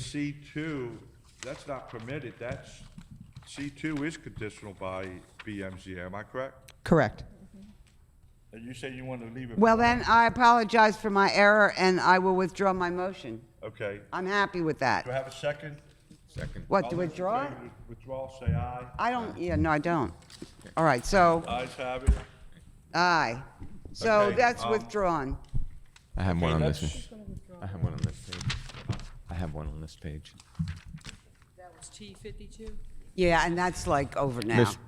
C two, that's not permitted, that's, C two is conditional by BMZ, am I correct? Correct. And you said you wanted to leave it. Well, then, I apologize for my error, and I will withdraw my motion. Okay, I'm happy with do I that. have a second? Second. What, to All those in withdraw? favor of Withdrawal, say aye. I don't, yeah, no, I don't. All right, so, Ayes have it. aye. So Okay, that's um, withdrawn. I have one Okay, on this. let's- one. I have one on this page. I have one on this page. That was T fifty-two? Yeah, and that's like over now. Mis-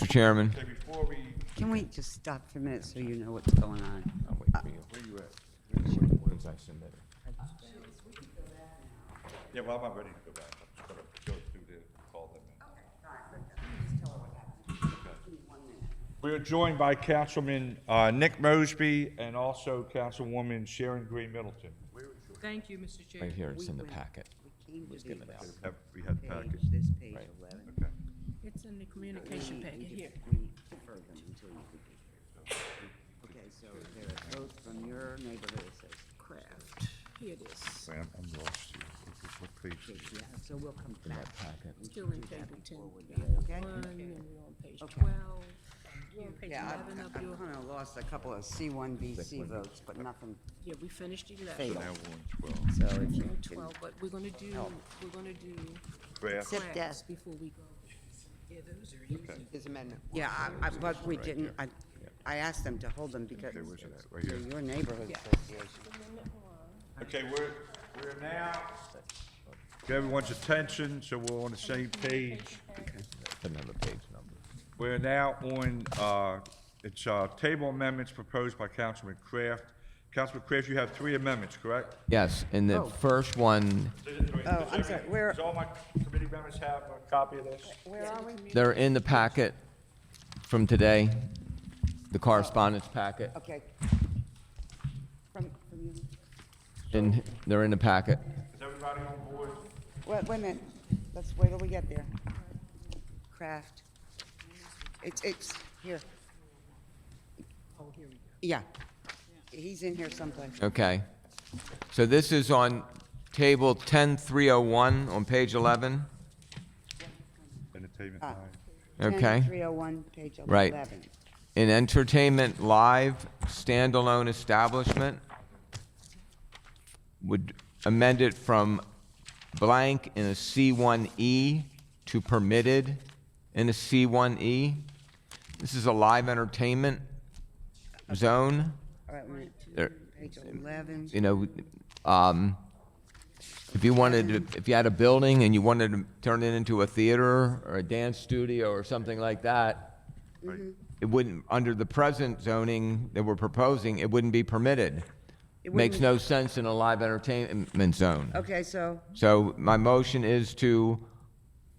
Mr. Chairman. Okay, before we, Can we just stop for a minute so you know what's going on? I'll wait for you. where you at? Ones I submitted. Yeah, well, I'm not ready to go back, I'm just gonna go through there, and call them in. We are joined by Councilman uh, Nick Mosby and also Councilwoman Sharon Green Middleton. Thank you, Mr. Chair. Right here, it's in the packet. Was given out. Have- We had the package. This page 11. Okay. It's in the communication packet here. Okay, so there are votes from your neighborhood, it says Kraft. Here it is. Wait, I'm I'm lost here. What- What page is it? Yeah, so we'll come back. Still in table ten, Okay. one, and we're on page Okay. twelve. We're on page Yeah, I- uh-huh. eleven I of your, kind of lost a couple of C1, BC votes, but nothing yeah, we finished eleven. fatal. Now we're on 12. So if you We're on can, Twelve, but we're gonna do, we're gonna do Draft. Sip crafts desk. before we go. Yeah, those are easy. his amendment. Yeah, I, I, but we didn't, I, I asked them to hold them because where's it at? Right they're here. your neighborhood Yeah. association. Okay, we're, we're now, get everyone's attention, so we're on the same page. Another page number. We're now on, uh, it's uh, table amendments proposed by Councilman Kraft. Councilman Kraft, you have three amendments, correct? Yes, and the Oh. first one, Oh, I'm sorry, where- Does all my committee members have a copy of this? Where are we? they're in the packet from today, the correspondence packet, Okay. From, from you. and they're in the packet. Is everybody on board? Wait, wait a minute, let's wait till we get there. Craft. It's, it's, here. Yeah, he's in here someplace. Okay. So this is on table 10301 on page 11, Entertainment Ah. nine. okay? 301, page 11. Right. An entertainment live standalone establishment would amend it from blank in a C1E to permitted in a C1E. This is a live entertainment zone, All right, wait, There- page 11. you know, um, if you wanted, to- if you had a building and you wanted to turn it into a theater or a dance studio or something like that, Right. Mm-hmm. it wouldn't, under the present zoning that we're proposing, it wouldn't be permitted. It Makes wouldn't- no sense in a live entertainment zone. Okay, so, So my motion is to,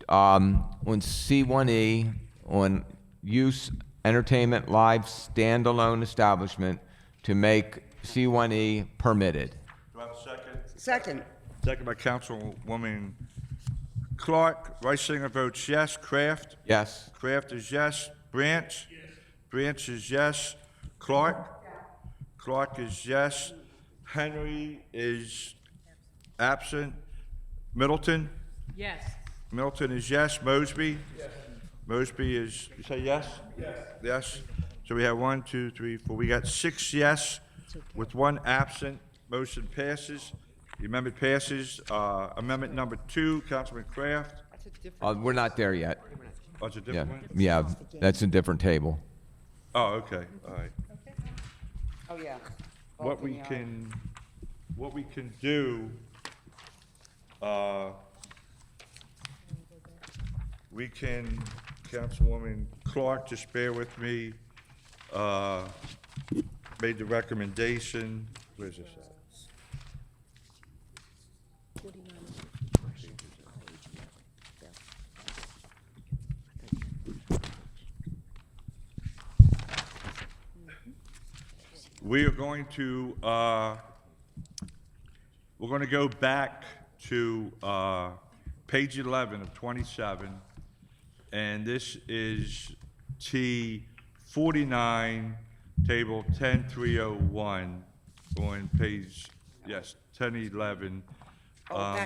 um, on C1E, on use entertainment live standalone establishment, to make C1E permitted. Do I have a second? second, Second by Councilwoman Clark. Riceinger votes yes. Kraft? Yes? Kraft is yes. Branch? Branch is yes. Clark? Clark is yes. Henry is absent. Middleton? Yes, Middleton is yes. Mosby? Mosby is, you say yes? Yes. Yes. So we have one, two, three, four. We got six yes with one absent. Motion passes. The amendment passes. Uh, Amendment number two, Councilman Kraft. Uh, we're not there yet. Oh, it's a different Yeah, one? yeah, that's a different table. Oh, okay, all right. oh, yeah. What Bulk in we the eye. can, what we can do, uh, we can, Councilwoman Clark, just bear with me, uh, made the recommendation, where's this at? We are going to, uh, we're going to go back to uh, page 11 of 27, and this is T49, table 10301, on page, yes, 1011. Oh, Um, back